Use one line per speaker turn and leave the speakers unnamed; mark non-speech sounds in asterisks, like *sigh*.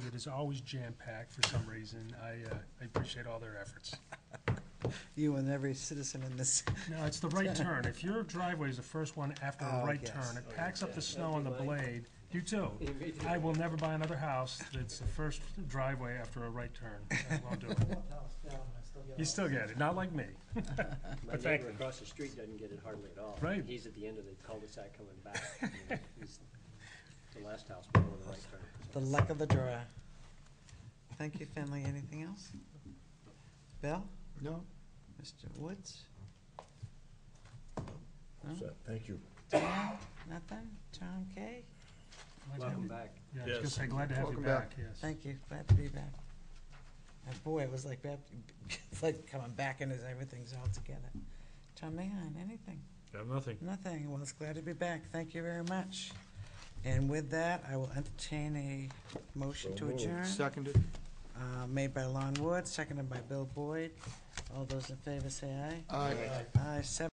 is always jam-packed for some reason. I, uh, I appreciate all their efforts.
You and every citizen in this, *laughs*
No, it's the right turn. If your driveway is the first one after a
Oh,
right
yes.
turn, it packs up the snow on the blade. You
*laughs*
too. I will never buy another house that's the first driveway after a right turn. I won't do it. You still get it, not like me.
My
thank
neighbor
them.
across the street doesn't get it hardly at all.
Right.
He's at the end of the cul-de-sac coming back. You know,
*laughs*
he's The last house before the right turn.
the luck of the draw. Thank you, Finley. Anything else? Bill?
No.
Mr. Woods? No?
So, Thank you.
Nothing? Tom Kay?
Glad to have
Welcome
you-
back.
Yeah, I was gonna
Yes.
say, glad to have you
Welcome back.
back, yes.
Thank you. Glad to be back. And boy, it was like, *laughs* back- it's like coming back and everything's all together. Tom Mahon, anything?
Got nothing.
Nothing. Well, it's glad to be back. Thank you very much. And with that, I will entertain a motion
So
to
moved.
adjourn.
Seconded.
Uh, made by Lon Wood, seconded by Bill Boyd. All those in favor say aye.
Aye.
Aye, seven.